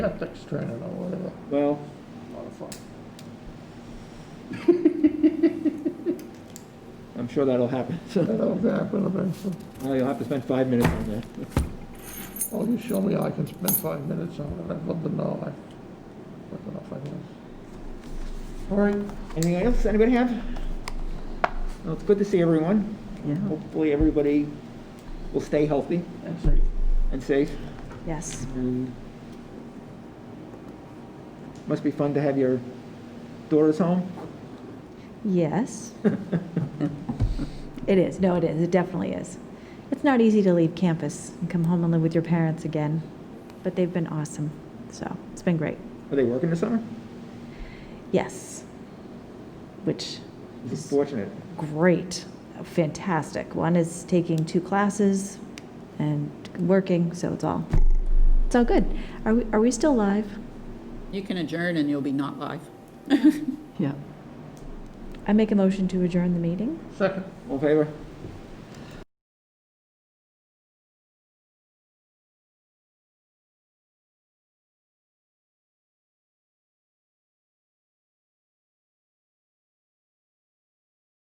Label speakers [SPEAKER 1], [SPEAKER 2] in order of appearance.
[SPEAKER 1] ethics training or whatever.
[SPEAKER 2] Well,
[SPEAKER 1] A lot of fun.
[SPEAKER 2] I'm sure that'll happen. So,
[SPEAKER 1] That'll happen eventually.
[SPEAKER 2] well, you'll have to spend five minutes on that.
[SPEAKER 1] Oh, you show me I can spend five minutes on it, I'd love to know, I, what the hell I was.
[SPEAKER 2] All right, anything else anybody have? Well, it's good to see everyone. Hopefully, everybody will stay healthy
[SPEAKER 1] That's right.
[SPEAKER 2] and safe.
[SPEAKER 3] Yes.
[SPEAKER 2] And Must be fun to have your daughters home.
[SPEAKER 3] Yes. It is. No, it is. It definitely is. It's not easy to leave campus and come home and live with your parents again, but they've been awesome. So it's been great.
[SPEAKER 2] Are they working this summer?
[SPEAKER 3] Yes. Which
[SPEAKER 2] This is fortunate.
[SPEAKER 3] great, fantastic. One is taking two classes and working, so it's all it's all good. Are we are we still live?
[SPEAKER 4] You can adjourn and you'll be not live.
[SPEAKER 5] Yeah.
[SPEAKER 3] I make a motion to adjourn the meeting.
[SPEAKER 1] Second,
[SPEAKER 2] All in favor?